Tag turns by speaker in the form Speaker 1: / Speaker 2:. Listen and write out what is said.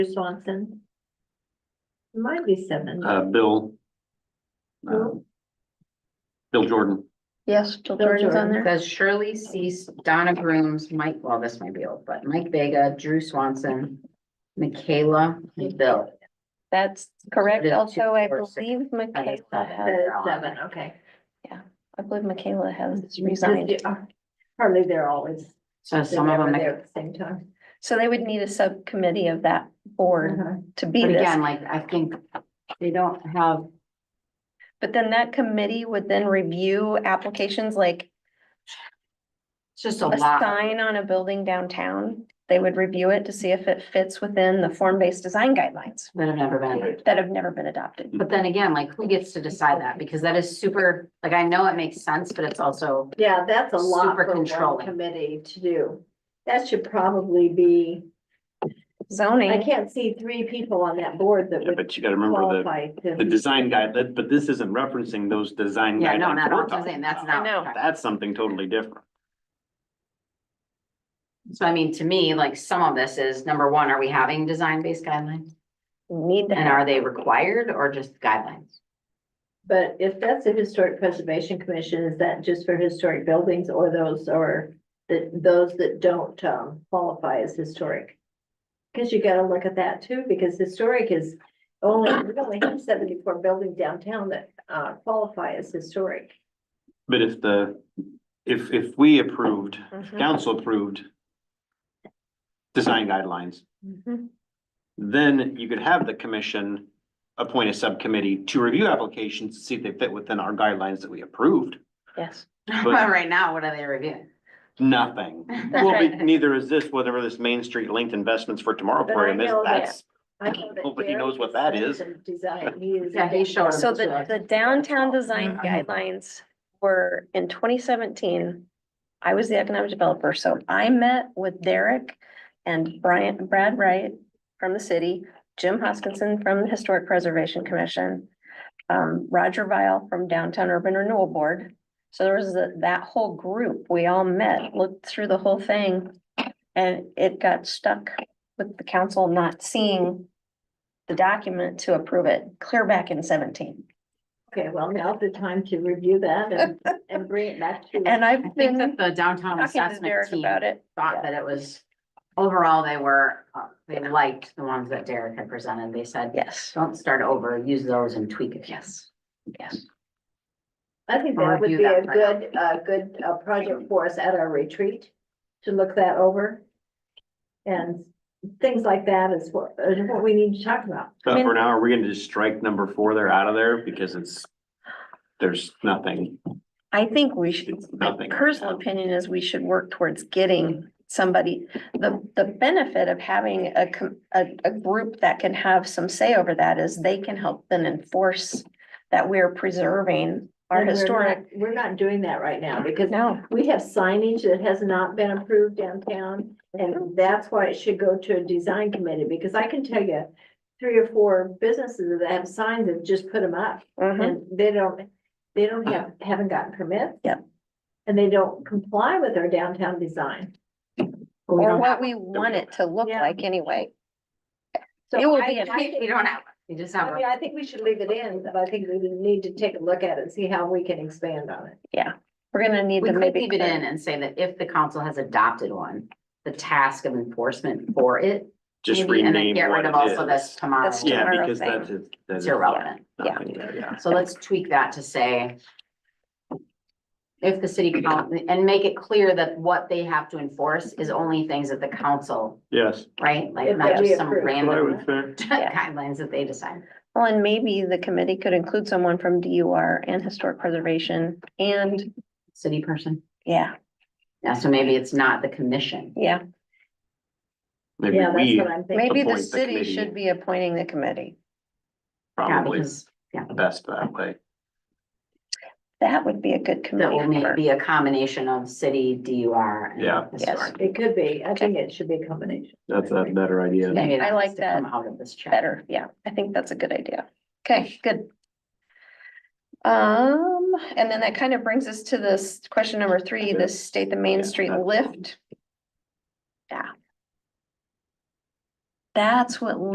Speaker 1: Swanson. It Might be seven. Uh,
Speaker 2: uh, Bill. um, Bill Jordan,
Speaker 3: Yes, Jill
Speaker 1: Bill
Speaker 3: Jordan's on
Speaker 1: Jordan.
Speaker 3: there.
Speaker 4: Says Shirley Cease, Donna Grooms, Mike, well, this might be old, but Mike Vega, Drew Swanson, Michaela, and Bill.
Speaker 3: That's correct.
Speaker 4: It is
Speaker 3: Also, I
Speaker 4: two, four, six.
Speaker 3: believe Michaela
Speaker 4: it's not
Speaker 3: has,
Speaker 4: that.
Speaker 1: Uh, Seven, okay.
Speaker 3: I believe Michaela has resigned.
Speaker 1: Hardly they're always.
Speaker 4: So some of
Speaker 1: they're
Speaker 4: them,
Speaker 1: there At the same time.
Speaker 3: So they would need a subcommittee of that board
Speaker 1: Uh-huh.
Speaker 3: to
Speaker 4: but
Speaker 3: be this.
Speaker 4: again, like, I think they don't have,
Speaker 3: But then that committee would then review applications like
Speaker 4: it's just a
Speaker 3: a
Speaker 4: lot.
Speaker 3: sign on a building downtown. They would review it to see if it fits within the form-based design guidelines
Speaker 4: That have never been,
Speaker 3: that have never been adopted.
Speaker 4: but then again, like, who gets to decide that? Because that is super, like, I know it makes sense, but it's also,
Speaker 1: Yeah, that's a lot
Speaker 4: Super
Speaker 1: for one
Speaker 4: controlling.
Speaker 1: committee to do. That should probably be, I
Speaker 3: Zoning,
Speaker 1: can't see three people on that board that
Speaker 2: yeah,
Speaker 1: would
Speaker 2: but you gotta remember
Speaker 1: qualify to.
Speaker 2: the, the design guide, that- but this isn't referencing those design
Speaker 4: yeah, no,
Speaker 2: guidelines
Speaker 4: not,
Speaker 2: we're
Speaker 4: I'm
Speaker 2: talking
Speaker 4: saying that's
Speaker 2: about.
Speaker 4: not.
Speaker 3: I know.
Speaker 2: That's something totally different.
Speaker 4: So I mean, to me, like, some of this is, number one, are we having design-based guidelines?
Speaker 3: need to
Speaker 4: And
Speaker 3: have,
Speaker 4: are they required or just guidelines?
Speaker 1: But if that's the Historic Preservation Commission, is that just for historic buildings or those or the, those that don't um qualify as historic? Cause you gotta look at that too, because historic is only, we only have seventy-four buildings downtown that uh qualify as historic.
Speaker 2: But if the, if, if we approved,
Speaker 4: Mm-hmm.
Speaker 3: Mhm.
Speaker 2: council approved design guidelines,
Speaker 3: Mhm.
Speaker 2: then you could have the commission appoint a subcommittee to review applications to see if they fit within our guidelines that we approved.
Speaker 3: yes.
Speaker 4: But right now, what are they reviewing?
Speaker 2: Nothing.
Speaker 3: That's
Speaker 2: Well,
Speaker 3: right.
Speaker 2: but neither is this, whatever this Main Street linked investments for tomorrow
Speaker 1: But I
Speaker 2: program is,
Speaker 1: know that-
Speaker 2: that's,
Speaker 1: I know that
Speaker 2: Nobody
Speaker 1: Derek
Speaker 2: knows what that is.
Speaker 1: some Design, he is.
Speaker 4: Yeah, he showed us.
Speaker 3: So the, the downtown design
Speaker 4: Mhm.
Speaker 3: guidelines were in twenty seventeen. I was the economic developer, so I met with Derek and Brian, Brad Wright from the city, Jim Hoskinson from the Historic Preservation Commission, um, Roger Vile from Downtown Urban Renewal Board. So there was that, that whole group, we all met, looked through the whole thing, and it got stuck with the council not seeing the document to approve it, clear back in seventeen.
Speaker 1: Okay, well, now's the time to review that and, and bring it back to.
Speaker 3: And
Speaker 4: I
Speaker 3: I've
Speaker 4: think
Speaker 3: been
Speaker 4: that the downtown
Speaker 3: talking to
Speaker 4: assessment
Speaker 3: Derek
Speaker 4: team
Speaker 3: about it.
Speaker 4: thought that it was, overall, they were, uh, they liked the ones that Derek had presented. They said,
Speaker 3: Yes,
Speaker 4: don't start over, use those and tweak it.
Speaker 3: yes, yes.
Speaker 1: I think
Speaker 4: Or
Speaker 1: that would
Speaker 4: review
Speaker 1: be a
Speaker 4: that plan.
Speaker 1: good, a good uh, project for us at our retreat, to look that over. And things like that is what, is what we need to talk about.
Speaker 2: but for now, are we gonna just strike number four there out of there because it's, there's nothing.
Speaker 3: I think we should,
Speaker 2: It's
Speaker 3: my
Speaker 2: nothing right
Speaker 3: personal
Speaker 2: now.
Speaker 3: opinion is we should work towards getting somebody, the, the benefit of having a, com- a, a group that can have some say over that is they can help then enforce that we're preserving our
Speaker 1: And we're not-
Speaker 3: historic.
Speaker 1: We're not doing that right now, because
Speaker 3: No,
Speaker 1: we have signage that has not been approved downtown, and that's why it should go to a design committee, because I can tell you three or four businesses that have signs that just put them up,
Speaker 3: mhm.
Speaker 1: And they don't, they don't have, haven't gotten permits.
Speaker 3: Yep.
Speaker 1: And they don't comply with our downtown design.
Speaker 4: we
Speaker 3: or
Speaker 4: don't
Speaker 3: what we want it to look
Speaker 1: Yeah.
Speaker 3: like anyway.
Speaker 1: So
Speaker 3: It will
Speaker 1: I-
Speaker 3: be an-
Speaker 1: I think-
Speaker 4: We don't have, we just have,
Speaker 1: I mean, I think we should leave it in, but I think we need to take a look at it, and see how we can expand on it.
Speaker 3: We're gonna need
Speaker 4: we
Speaker 3: to
Speaker 4: could
Speaker 3: maybe.
Speaker 4: leave it in and say that if the council has adopted one, the task of enforcement for it.
Speaker 2: Just
Speaker 4: maybe, and then
Speaker 2: rename
Speaker 4: Get
Speaker 2: what
Speaker 4: rid
Speaker 2: it
Speaker 4: of also
Speaker 2: is.
Speaker 4: this tomorrow.
Speaker 3: That's
Speaker 2: Yeah,
Speaker 3: tomorrow
Speaker 2: because
Speaker 3: thing.
Speaker 2: that's, it- that's.
Speaker 4: It's irrelevant.
Speaker 3: Yeah.
Speaker 2: nothing there, yeah.
Speaker 4: So let's tweak that to say. If the city council, and make it clear that what they have to enforce is only things that the council,
Speaker 2: Yes.
Speaker 4: right?
Speaker 1: If
Speaker 4: Like not
Speaker 1: we
Speaker 4: just some
Speaker 1: approve.
Speaker 2: That's what I
Speaker 4: random
Speaker 2: would say.
Speaker 3: Yeah.
Speaker 4: guidelines that they decide.
Speaker 3: Well, and maybe the committee could include someone from DUR and historic preservation and,
Speaker 4: City person.
Speaker 3: yeah,
Speaker 4: Yeah, so maybe it's not the commission.
Speaker 3: yeah.
Speaker 2: Maybe
Speaker 1: Yeah, that's
Speaker 2: we
Speaker 1: what I'm thinking.
Speaker 3: Maybe the
Speaker 2: Appoint the
Speaker 3: city
Speaker 2: committee.
Speaker 3: should be appointing the committee.
Speaker 4: Yeah,
Speaker 2: probably
Speaker 4: because
Speaker 2: best that way.
Speaker 3: That would be a good
Speaker 4: that
Speaker 3: committee.
Speaker 4: will
Speaker 3: member.
Speaker 4: maybe be a combination of city, DUR. and
Speaker 2: Yeah.
Speaker 4: historic.
Speaker 3: Yes.
Speaker 1: It could be, I think it should be a combination.
Speaker 2: That's a better idea.
Speaker 4: Maybe it
Speaker 3: I like
Speaker 4: has to come
Speaker 3: that
Speaker 4: Out of this chat.
Speaker 3: Better, yeah, I think that's a good idea. Okay, good. Um, and then that kind of brings us to this question number three, the state the Main
Speaker 2: Yeah,
Speaker 3: Street
Speaker 2: that's-
Speaker 3: lift. Yeah. That's what